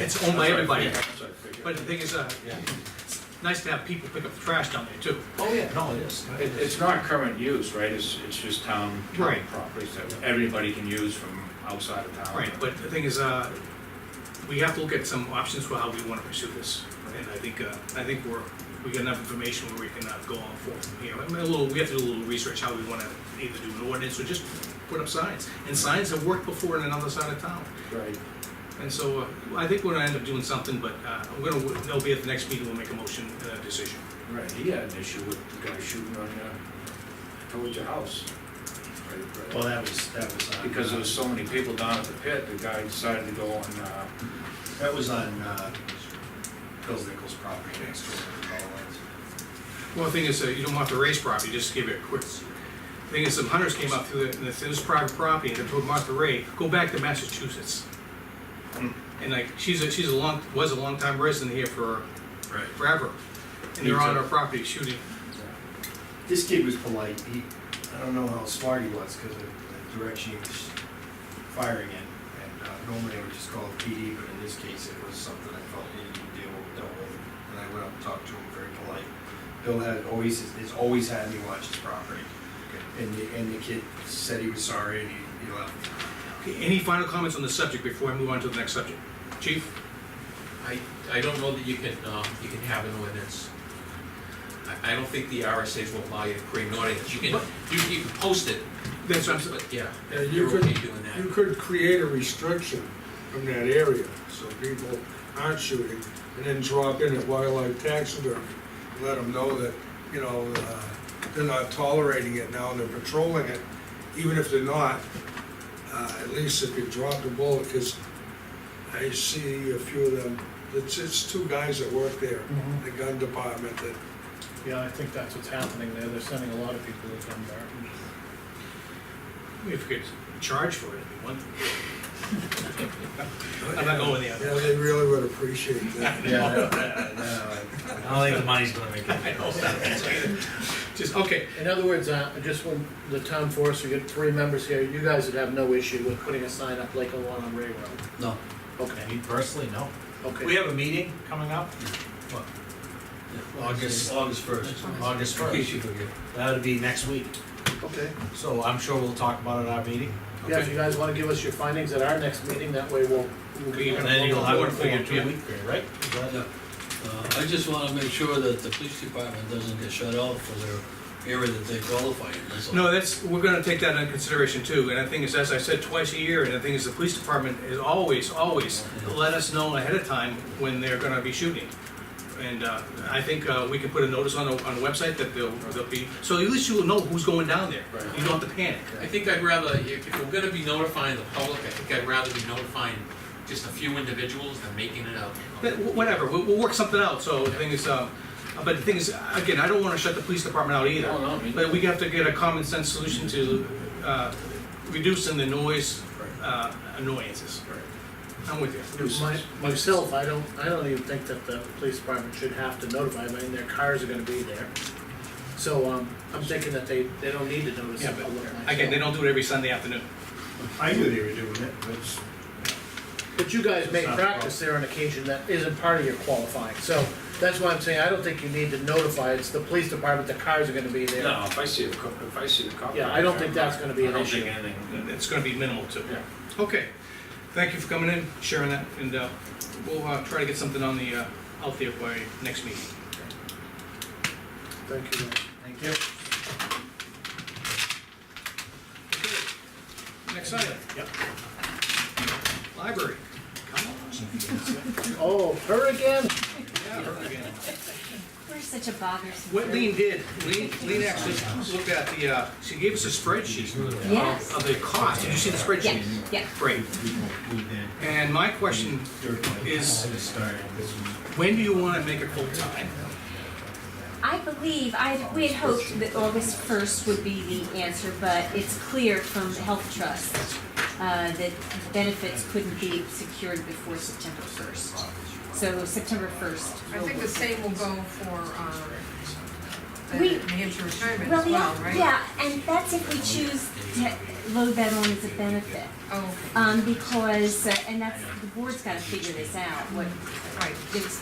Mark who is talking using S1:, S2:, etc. S1: it's owned by
S2: That's right,
S1: everybody.
S2: yeah, that's right, figure.
S1: But the thing is, uh,
S2: Yeah.
S1: it's nice to have people pick up the trash down there too.
S2: Oh, yeah,
S3: No, it is.
S2: It, it's not current use, right, it's, it's just town town
S1: Right.
S2: properties that everybody can use from outside of town.
S1: Right, but the thing is, uh, we have to look at some options for how we wanna pursue this. And I think, uh, I think we're, we got enough information where we can uh, go on forth, you know, I mean, a little, we have to do a little research how we wanna either do an ordinance or just put up signs. And signs have worked before in another side of town.
S2: Right,
S1: And so, uh, I think we're gonna end up doing something, but, uh, we're gonna, they'll be at the next meeting, we'll make a motion, uh, decision.
S2: right, he had an issue with the guy shooting on your, towards your house. Right,
S3: Well,
S2: right.
S3: that was, that was on.
S2: Because there was so many people down at the pit, the guy decided to go on, uh,
S3: That was on, uh, Phil Nichols' property next door. to Paul Lynn's.
S1: Well, the thing is, uh, you don't want the race property, just give it a quick. The Thing is, some hunters came up to the, this this private property and they told Martha Ray, go back to Massachusetts.
S4: Hmm.
S1: And like, she's a, she's a long, was a long time resident here for
S2: Right.
S1: forever. And they're on our property shooting.
S3: This kid was polite, he, I don't know how smart he was, cause of the direction he was firing in. And, uh, normally I would just call the PD, but in this case, it was something I felt needed to be able to deal with. And I went up and talked to him, very polite. Bill had always, has always had me watch his property. And the, and the kid said he was sorry and he, he left.
S1: Okay, Any final comments on the subject before I move on to the next subject? Chief?
S5: I, I don't know that you can, um, you can have an ordinance. I, I don't think the RSA's will allow you to create an ordinance, you can, you, you can post it,
S1: That's, what I'm saying.
S5: but yeah,
S6: Yeah,
S5: you're
S6: you
S5: okay
S6: could-
S5: doing
S6: You
S5: that.
S6: could create a restriction from that area, so people aren't shooting, and then drop in at wildlife taxidermy. Let them know that, you know, uh, they're not tolerating it now, and they're patrolling it, even if they're not, uh, at least if you drop the bullet, because I see a few of them, it's, it's two guys that work there, the gun department, that
S7: Yeah, I think that's what's happening there, they're sending a lot of people to come there.
S1: if you could charge for it, it'd be one thing. I'm not going there.
S6: Yeah, they really would appreciate that.
S3: Yeah. No,
S4: I don't think the money's gonna make it.
S1: I know, Just, okay,
S7: In other words, uh, just when the town forester, you got three members here, you guys would have no issue with putting a sign up like the one on Ray Road.
S4: No, I
S7: Okay,
S4: mean, personally, no. We
S7: okay.
S4: have a meeting coming up. What? August, August first. August first. That would be next week.
S7: Okay.
S4: So I'm sure we'll talk about it at our meeting.
S7: Yeah, if you guys wanna give us your findings at our next meeting, that way we'll. we'll
S1: Okay, you're
S4: And
S7: get-
S4: then you'll have it for
S1: Yeah.
S4: your two week period, right? Is that-
S8: Yeah. Uh, I just wanna make sure that the police department doesn't get shut out for their area that they qualify in, that's all.
S1: No, that's, we're gonna take that into consideration too, and the thing is, as I said, twice a year, and the thing is, the police department is always, always let us know ahead of time when they're gonna be shooting. And, uh, I think, uh, we can put a notice on the, on the website that they'll, they'll be, so at least you'll know who's going down there. You don't have to panic.
S5: I think I'd rather, if, if we're gonna be notifying the public, I think I'd rather be notifying just a few individuals than making it out.
S1: But wh- Whatever, we'll, we'll work something out, so the thing is, um, but the thing is, again, I don't wanna shut the police department out either.
S2: Oh, no, I mean-
S1: But we have to get a common sense solution to, uh, reducing the noise, uh, annoyances. I'm with you.
S7: My- Myself, I don't, I don't even think that the police department should have to notify them, I mean, their cars are gonna be there. So, um, I'm thinking that they, they don't need to notice
S1: Yeah, but
S7: the public.
S1: again,
S7: myself.
S1: they don't do it every Sunday afternoon.
S3: I knew they were doing it, but it's-
S7: But you guys may
S3: It's not a
S7: practice there on occasion, that isn't part of your qualifying, so that's why I'm saying, I don't think you need to notify, it's the police department, the cars are gonna be there.
S2: No, if I see a cop, if I see a cop.
S7: Yeah, I don't think that's gonna be an
S2: I
S7: issue.
S2: don't think anything,
S1: It's gonna be minimal too.
S2: yeah.
S1: Okay, thank you for coming in, sharing that, and uh, we'll uh, try to get something on the, uh, out there by next meeting.
S7: Thank you.
S4: Thank you.
S1: Next item. Yep. Library. Come on.
S7: Oh, her again?
S1: Yeah, her again.
S9: We're such a bothersome.
S1: What
S9: group.
S1: Lean did, Lean, Lean actually looked at the, uh, she gave us a spreadsheet
S9: Yes.
S1: of the cost. Did you see the
S9: Yeah,
S1: spreadsheet?
S9: yeah.
S1: Great.
S3: we won't- we did.
S1: And my question is,
S3: It started this week.
S1: when do you wanna make it full-time?
S9: I believe, I, we had hoped that August first would be the answer, but it's clear from Health Trust uh, that benefits couldn't be secured before September first. So September first.
S10: I think the same will go for, um, the
S9: We-
S10: New Hampshire retirement
S9: Well,
S10: as well,
S9: yeah,
S10: right?
S9: yeah, and that's if we choose to load that on as a benefit.
S10: Oh,
S9: Um, because, uh, and that's, the board's gotta figure this out, what,
S10: right.
S9: it's,